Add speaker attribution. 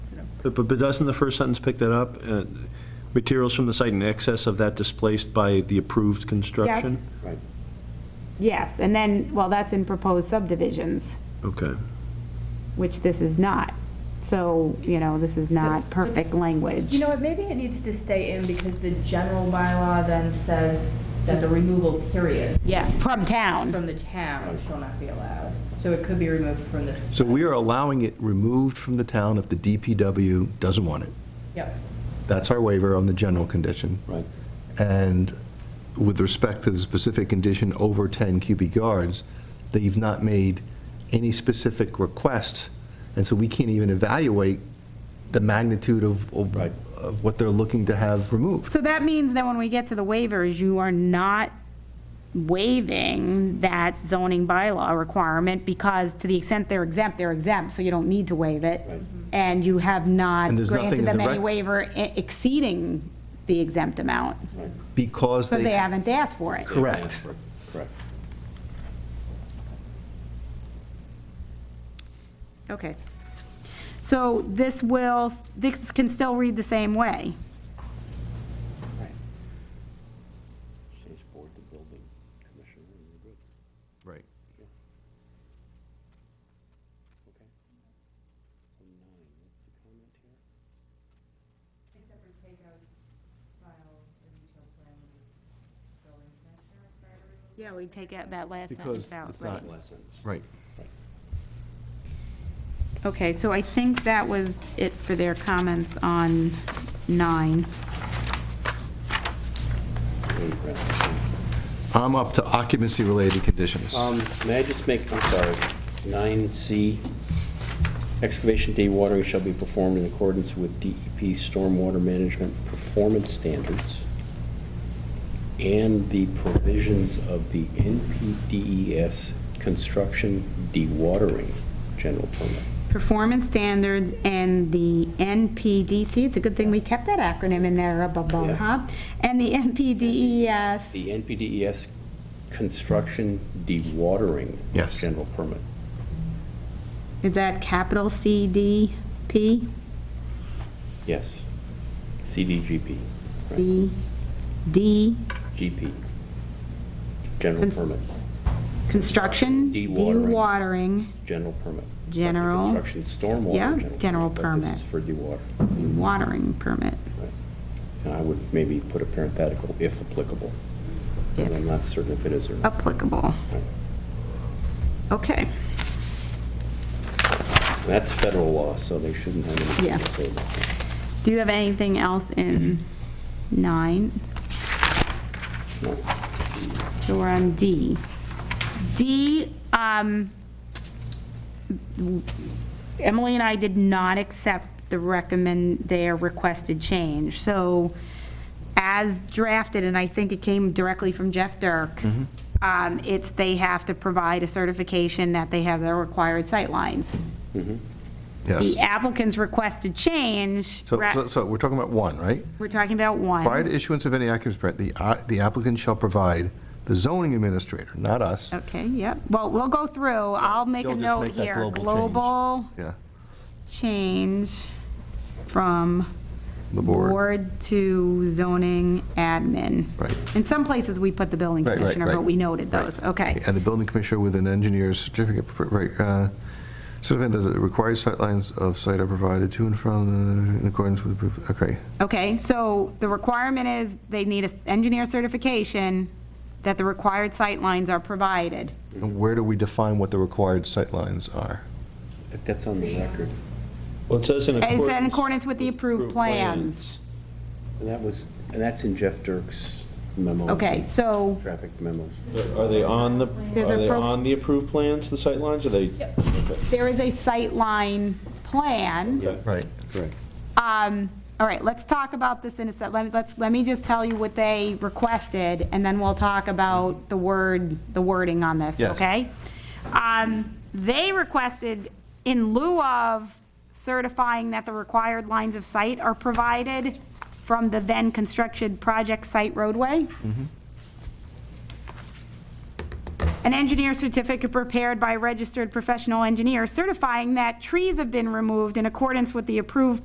Speaker 1: But, but doesn't the first sentence pick that up? Uh, Materials from the site in excess of that displaced by the approved construction?
Speaker 2: Right.
Speaker 3: Yes, and then, well, that's in proposed subdivisions,
Speaker 1: Okay.
Speaker 3: which this is not. So, you know, this is not perfect language.
Speaker 4: You know what, maybe it needs to stay in because the general bylaw then says that the removal period
Speaker 3: Yeah, from town.
Speaker 4: from the town shall not be allowed. So it could be removed from this.
Speaker 2: So we are allowing it removed from the town if the DPW doesn't want it.
Speaker 4: Yep.
Speaker 2: That's our waiver on the general condition. Right. And with respect to the specific condition over 10 cubic yards, they've not made any specific requests, and so we can't even evaluate the magnitude of, of- of what they're looking to have removed.
Speaker 3: So that means that when we get to the waivers, you are not waiving that zoning bylaw requirement because to the extent they're exempt, they're exempt, so you don't need to waive it. And you have not
Speaker 2: And there's nothing in
Speaker 3: granted
Speaker 2: the
Speaker 3: them any
Speaker 2: rec-
Speaker 3: waiver e- exceeding the exempt amount
Speaker 2: Because they...
Speaker 3: because they haven't asked for it.
Speaker 2: Correct.
Speaker 3: Okay. So this will, this can still read the same way.
Speaker 2: Right.
Speaker 3: Yeah, we take out that last
Speaker 2: Because
Speaker 3: sentence out,
Speaker 2: it's
Speaker 3: right?
Speaker 2: not, right.
Speaker 3: Okay, so I think that was it for their comments on nine.
Speaker 2: I'm up to occupancy-related conditions.
Speaker 5: Um, May I just make, I'm sorry, 9C, excavation dewatering shall be performed in accordance with DEP stormwater management performance standards and the provisions of the NPDES E construction dewatering general permit.
Speaker 3: Performance standards and the NPDC, it's a good thing we kept that acronym in there, above,
Speaker 5: Yeah.
Speaker 3: huh? And the NPDES,
Speaker 5: The NPDES E construction dewatering
Speaker 2: Yes.
Speaker 5: general permit.
Speaker 3: is that capital CDP?
Speaker 5: Yes. CDGP,
Speaker 3: D,
Speaker 5: GP, general
Speaker 3: Cons-
Speaker 5: permit.
Speaker 3: construction,
Speaker 5: Dewatering.
Speaker 3: dewatering,
Speaker 5: General permit. It's not the
Speaker 3: General.
Speaker 5: Construction stormwater.
Speaker 3: Yeah, general
Speaker 5: but
Speaker 3: permit.
Speaker 5: This is for dewater.
Speaker 3: watering permit.
Speaker 5: And I would maybe put a parenthetical, if applicable. And I'm not certain if it is or
Speaker 3: Oh.
Speaker 5: not.
Speaker 3: applicable. Okay,
Speaker 5: And That's federal law, so they shouldn't have anything
Speaker 3: Yeah.
Speaker 5: to say about that.
Speaker 3: do you have anything else in nine?
Speaker 5: No.
Speaker 3: So we're on D. D, um, Emily and I did not accept the recommend, their requested change. So as drafted, and I think it came directly from Jeff Dirk,
Speaker 2: Mm-hmm.
Speaker 3: um, it's they have to provide a certification that they have their required sightlines. The
Speaker 2: Yes.
Speaker 3: applicant's requested change,
Speaker 2: So-
Speaker 3: ra-
Speaker 2: So, so we're talking about one, right?
Speaker 3: we're talking about
Speaker 2: Prior
Speaker 3: one.
Speaker 2: to issuance of any occupancy permit, the uh, the applicant shall provide the zoning administrator, not us.
Speaker 3: Okay, yep. Well, we'll go through. I'll make a
Speaker 2: You'll just
Speaker 3: note
Speaker 2: make that
Speaker 3: here.
Speaker 2: global change.
Speaker 3: Global
Speaker 2: Yeah,
Speaker 3: change from
Speaker 2: The board.
Speaker 3: board to zoning admin.
Speaker 2: Right.
Speaker 3: In some places, we put the building
Speaker 2: Right, right,
Speaker 3: commissioner, but
Speaker 2: right.
Speaker 3: we noted those. Okay.
Speaker 2: and the building commissioner with an engineer's certificate, pr- right, uh, certificate that the required sightlines of site are provided to and from, uh, in accordance with, approved- okay.
Speaker 3: Okay, so the requirement is they need an engineer certification that the required sight lines are provided.
Speaker 2: And where do we define what the required sightlines are?
Speaker 5: But That's on the record.
Speaker 1: Well, it says in accordance.
Speaker 3: It's in accordance with the approved plans.
Speaker 5: And that was, and that's in Jeff Dirk's memo.
Speaker 3: Okay, so.
Speaker 5: Traffic memos.
Speaker 1: Are they on the,
Speaker 3: There's
Speaker 1: are
Speaker 3: a
Speaker 1: they
Speaker 3: prof-
Speaker 1: on the approved plans, the sight lines? Are they?
Speaker 3: there is a sightline plan.
Speaker 2: Right.
Speaker 5: Correct.
Speaker 3: Um, All right, let's talk about this in a sec, let me, let's, let me just tell you what they requested, and then we'll talk about the word, the wording on this,
Speaker 2: Yes.
Speaker 3: okay? Um, They requested, in lieu of certifying that the required lines of sight are provided from the then-constructed project site roadway, An engineer certificate prepared by a registered professional engineer certifying that trees have been removed in accordance with the approved